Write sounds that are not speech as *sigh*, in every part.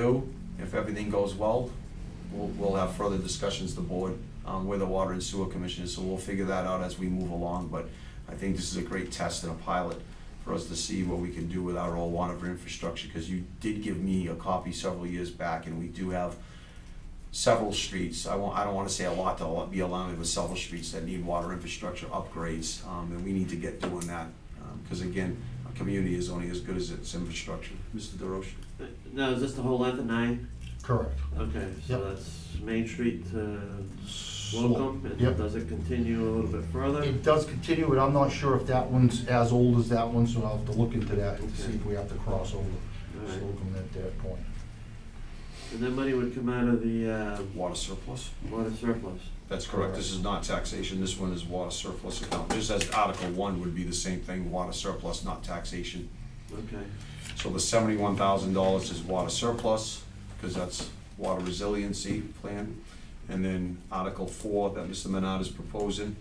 do. If everything goes well, we'll, we'll have further discussions, the board, um, with the Water and Sewer Commission, so we'll figure that out as we move along, but I think this is a great test and a pilot for us to see what we can do with our old water infrastructure, because you did give me a copy several years back, and we do have several streets, I won't, I don't wanna say a lot, there'll be allowing with several streets that need water infrastructure upgrades, um, and we need to get doing that. Um, Cause again, a community is only as good as its infrastructure. Mr. DeRoche? Now, Uh, is this the whole length of nine? Correct. Okay, so Yep. that's Main Street to So Welcome, Yep. and does it continue a little bit further? It does continue, but I'm not sure if that one's as old as that one, so I'll have to look into that and see if we have to cross over Alright, Slocum at that point. and that money would come out of the, uh, Water surplus? water surplus? That's correct, this is not taxation, this one is water surplus account, just as Article one would be the same thing, water surplus, not taxation. Okay, So the seventy-one thousand dollars is water surplus, because that's water resiliency plan. And then Article four that Mr. Menard is proposing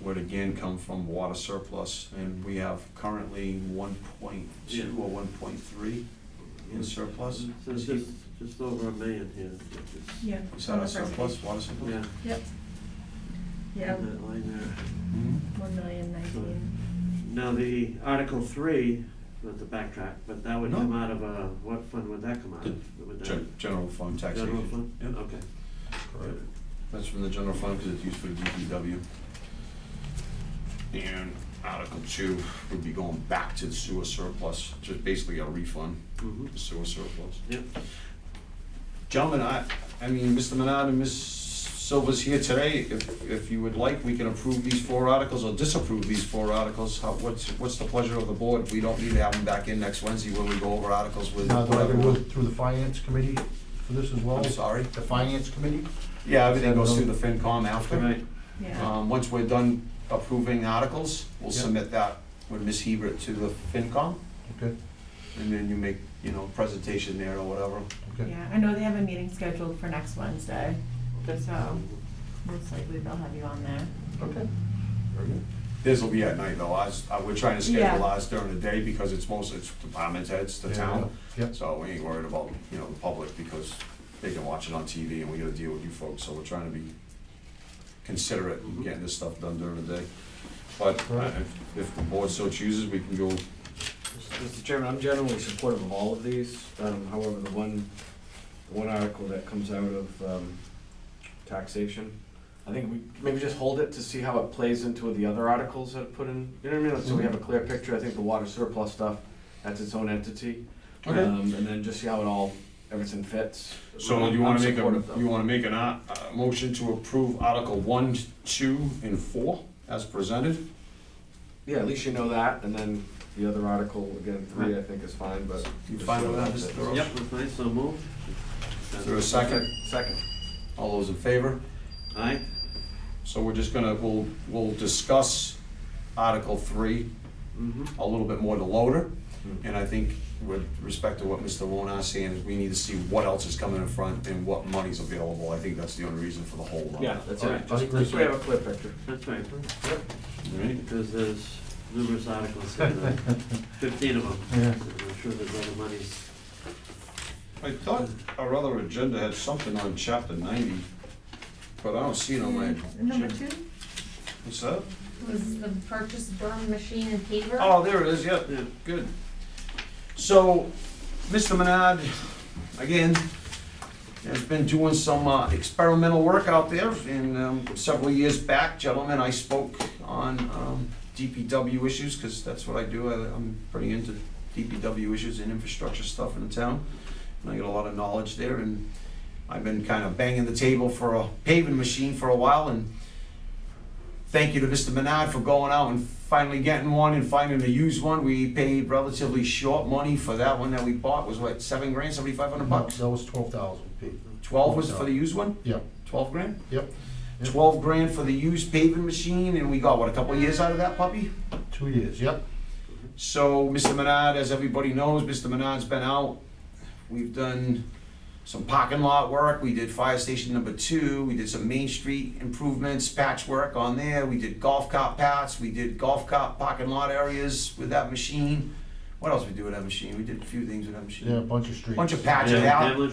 would again come from water surplus. And we have currently one point two or one point three in surplus. so it's just, just over a million here. which is- Yeah. Is on that the our first surplus, page. water surplus? Yeah. Yep. Yeah, in That line there. Mhm. one million nineteen. Now, the Article three, not to backtrack, but that would No. come out of, uh, what fund would that come out of? Would that- Gen- General fund General taxation. fund? Yep. Okay. Correct. That's from the general fund, because it's used for DPW. And Article two would be going back to the sewer surplus, just basically a refund, Mhm. the sewer surplus. Yep. Gentlemen, I, I mean, Mr. Menard and Ms. Silva's here today, if, if you would like, we can approve these four articles or disapprove these four articles. How, what's, what's the pleasure of the board? We don't need to have them back in next Wednesday when we go over articles with Now, do I whatever. go through the finance committee for this as well? I'm sorry? The finance committee? Yeah, everything goes through the FinCom after. All right, Yeah, Um, once we're done approving articles, we'll Yeah. submit that with Ms. Hebert to the FinCom, Okay, and then you make, you know, presentation there or whatever. okay. yeah, I know they have a meeting scheduled for next Wednesday, so Um, most likely they'll have you on there. Okay. Very good. This will be at night though, ours, uh, we're trying to Yeah. schedule ours during the day because it's most, it's department heads, the Yeah, town. Yep, So we ain't worried about, you know, the public because they can watch it on TV and we gotta deal with you folks, so we're trying to be considerate in getting this stuff done during the day. But uh, Mm-hmm. Right. if, if the board so chooses, we can go Mr. Chairman, I'm generally supportive of all of these. Um, However, the one, the one article that comes out of um, taxation, I think we maybe just hold it to see how it plays into the other articles that are put in. You know what I mean? So we have a clear picture. I think the water surplus stuff, that's its own entity. Okay. Um, And then just see how it all, everything fits. So I'm- you wanna I'm make supportive, though. a, you wanna make an, ar- a motion to approve Article one, two, and four as presented? Yeah, at least you know that, and then the other article, again, three, I think is fine, but. You fine with that, Mr. Roach? Yep, that's fine, so move. Is there a second? Second. All those in favor? Aye, So we're just gonna, we'll, we'll discuss Article three mm-hmm. a little bit more to loader. Hmm. And I think with respect to what Mr. Wonar's saying, is we need to see what else is coming in front and what money's available. I think that's the only reason for the hold on. Yeah, that's All it. right. Just just so we have a clear picture. That's right, All right? because there's numerous articles *laughs* here, there are fifteen of them. Yeah. And I'm sure there's other monies. I thought our other agenda had something on chapter ninety, but I don't see it on my. Number agenda. two What's that? was the purchase burn machine and paver. Oh, there it is, yep. Yeah, Good. So, Mr. Menard, again, has been doing some uh, experimental work out there. And um, several years back, gentlemen, I spoke on um, DPW issues, because that's what I do. I- I'm pretty into DPW issues and infrastructure stuff in the town. And I get a lot of knowledge there. And I've been kind of banging the table for a paving machine for a while. And thank you to Mr. Menard for going out and finally getting one and finding a used one. We paid relatively short money for that one that we bought, was what, seven grand, seventy-five Mm-hmm. hundred bucks? That was twelve thousand, Pete. Twelve was for the used one? Yep, Twelve grand? yep. Yep. Twelve grand for the used paving machine, and we got, what, a couple of years out of that puppy? Two years, yep. So, Mr. Menard, as everybody knows, Mr. Menard's been out. We've done some parking lot work, we did fire station number two, we did some Main Street improvements, patchwork on there, we did golf cart paths, we did golf cart parking lot areas with that machine. What else we do with that machine? We did a few things with that machine. Yeah, a bunch of streets. Bunch of patch Yeah, it out. Hamlet